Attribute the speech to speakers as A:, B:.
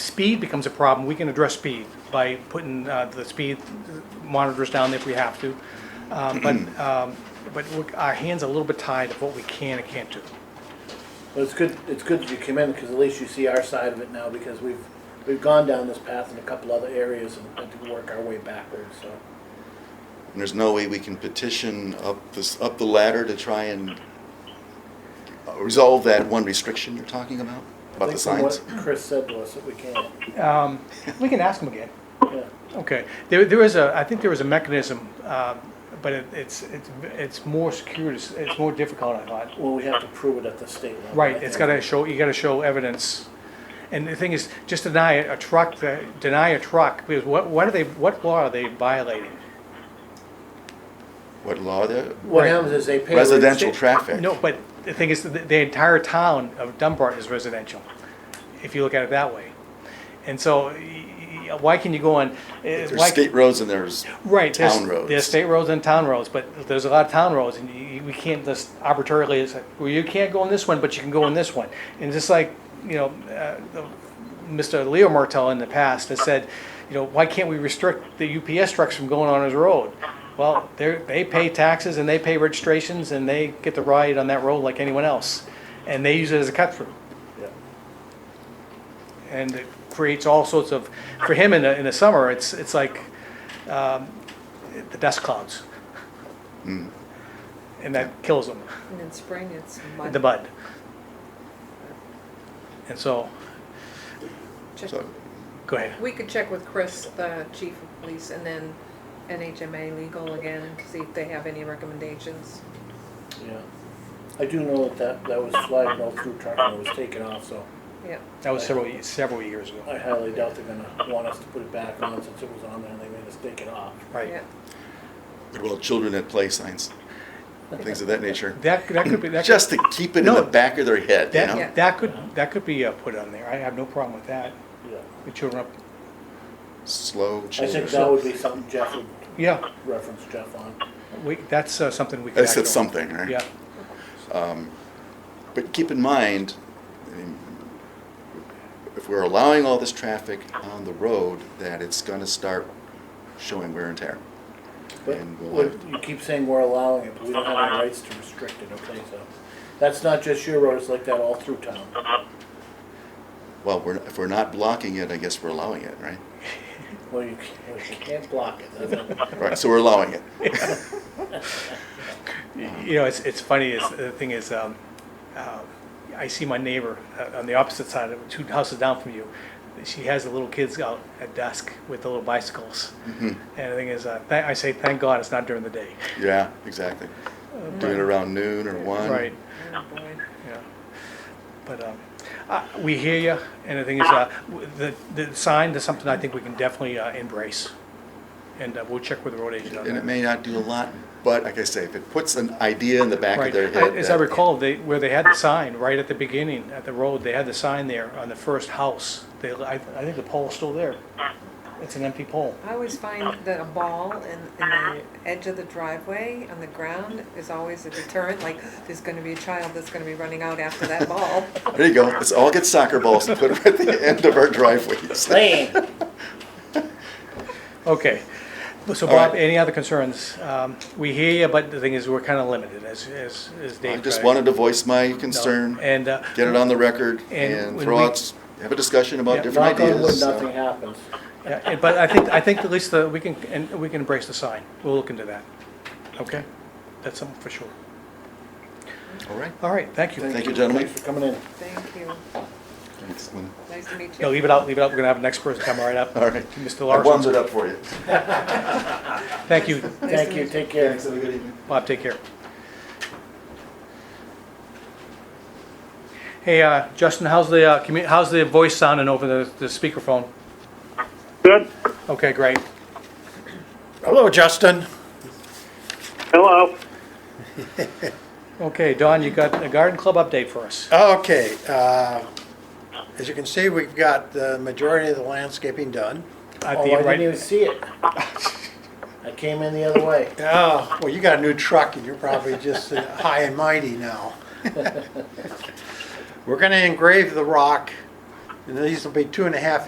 A: Speed becomes a problem. We can address speed by putting uh, the speed monitors down if we have to. Um, But, um, but we're- our hands are a little bit tied of what we can and can't do.
B: But it's good, it's good that you came in, because at least you see our side of it now, because we've, we've gone down this path in a couple other areas and had to work our way backwards, so.
C: And there's no way we can petition up this, up the ladder to try and uh, resolve that one restriction you're talking about,
B: I
C: about the
B: think
C: signs?
B: from what Chris said to us that we can't,
A: We can ask them again.
B: yeah.
A: Okay, there, there is a, I think there is a mechanism, um, but it- it's, it's, it's more secure, it's it's more difficult, I thought.
B: Well, we have to prove it at the state level.
A: Right, it's gotta show, you gotta show evidence. And the thing is, just deny a truck, deny a truck, because what, what are they, what law are they violating?
C: What law there?
B: What happens is they pay.
C: Residential traffic.
A: No, but the thing is, the, the entire town of Dunbar is residential, if you look at it that way. And so, y- y- why can you go on? eh,
C: There's
A: why-
C: state roads and there's
A: Right, there's,
C: town roads.
A: there's state roads and town roads, but there's a lot of town roads, and you, we can't just arbitrarily, it's like, well, you can't go on this one, but you can go on this one. And just like, you know, uh, the- Mr. Leo Martell in the past has said, you know, why can't we restrict the UPS trucks from going on his road? Well, they're, they pay taxes and they pay registrations and they get to ride on that road like anyone else, and they use it as a cut through
B: Yeah.
A: and it creates all sorts of, for him in the, in the summer, it's, it's like, um, the dust clouds.
C: Hmm.
A: And that kills him,
D: And in spring, it's mud.
A: the bud. And so,
D: Check-
C: So,
A: go ahead.
D: We could check with Chris, the chief of police, and then NHMA legal again, to see if they have any recommendations.
B: Yeah. I do know that that, that was flagged no food truck and it was taken off, so
D: Yeah,
A: That was several, ye- several years ago,
B: I highly doubt they're gonna want us to put it back on since it was on there and they made us take it off.
A: right?
D: yeah.
C: well, children at play signs, things of that nature,
A: That, that could be, that could,
C: just to keep it in
A: No.
C: the back of their head, you
A: that,
C: know?
A: that could, that could be uh, put on there. I have no problem with that.
B: Yeah.
A: The children up,
C: Slow
B: I think
C: children.
B: that would be something Jeff would
A: yeah,
B: reference Jeff on.
A: we, that's uh, something we could.
C: I said
A: act on.
C: something, right?
A: Yeah,
C: But keep in mind, I mean, if we're allowing all this traffic on the road, that it's gonna start showing wear and tear.
B: But
C: And we'll
B: what-
C: have-
B: you keep saying we're allowing it, but we don't have any rights to restrict it, okay, so. That's not just your road, it's like that all through town.
C: Well, we're, if we're not blocking it, I guess we're allowing it, right?
B: Well, you can't, well, you can't block it. that's it.
C: Right, so we're allowing it.
A: you know, it's, it's funny, is, the thing is, um, uh, I see my neighbor uh, on the opposite side, of two houses down from you. She has the little kids out at dusk with the little bicycles.
C: Mm-hmm.
A: And the thing is, uh, tha- I say, thank God it's not during the day.
C: Yeah, exactly. Doing it around noon or one.
A: Uh, Right,
D: Oh, boy.
A: yeah. But, um, uh, we hear you, and the thing is, uh, w- the, the sign is something I think we can definitely uh, embrace. And uh, we'll check with the road agent on that.
C: And it may not do a lot, but like I say, if it puts an idea in the back of
A: Right,
C: their head.
A: I- as I
C: that-
A: recall, they, where they had the sign, right at the beginning, at the road, they had the sign there on the first house. They, I, I think the pole's still there. It's an empty pole.
D: I always find that a ball in, in the edge of the driveway on the ground is always a deterrent, like, there's gonna be a child that's gonna be running out after that ball.
C: There you go. Let's all get soccer balls and put them at the end of our driveways.
B: Lane,
A: Okay. So
C: All right.
A: Bob, any other concerns? Um, we hear you, but the thing is, we're kind of limited, as, as, as Dave.
C: I just
A: tried.
C: wanted to voice my
A: No,
C: concern,
A: And, uh,
C: get it on the record,
A: And
C: and
A: when
C: throw
A: we-
C: out, s- have a discussion about
A: Yeah,
C: different
B: knock on wood,
C: ideas.
B: nothing
C: so-
B: happens.
A: yeah, and- but I think, I think at least the, we can, and we can embrace the sign. We'll look into that. Okay? That's something for sure.
C: All right.
A: All right, thank you.
C: Thank you, gentlemen.
B: Thanks for coming in.
D: Thank you,
C: Thanks, Lynn.
D: nice to meet
A: No,
D: you.
A: leave it out, leave it out. We're gonna have the next person come right up.
C: All right.
A: Mr.
C: I warmed
A: Larson,
C: it up for you.
A: thank you.
D: Nice to
B: Thank you,
D: meet
B: take care.
C: have a good evening.
A: Bob, take care. Hey, uh, Justin, how's the, uh, commu- how's the voice sounding over the, the speakerphone?
E: Good.
A: Okay, great.
B: Hello, Justin.
E: Hello.
A: Okay, Don, you got a garden club update for us.
F: Okay, uh, as you can see, we've got the majority of the landscaping done.
A: At
B: Oh,
A: the
B: I didn't
A: right,
B: even see it. I came in the other way.
F: Oh, well, you got a new truck and you're probably just uh, high and mighty now. We're gonna engrave the rock, and these will be two and a half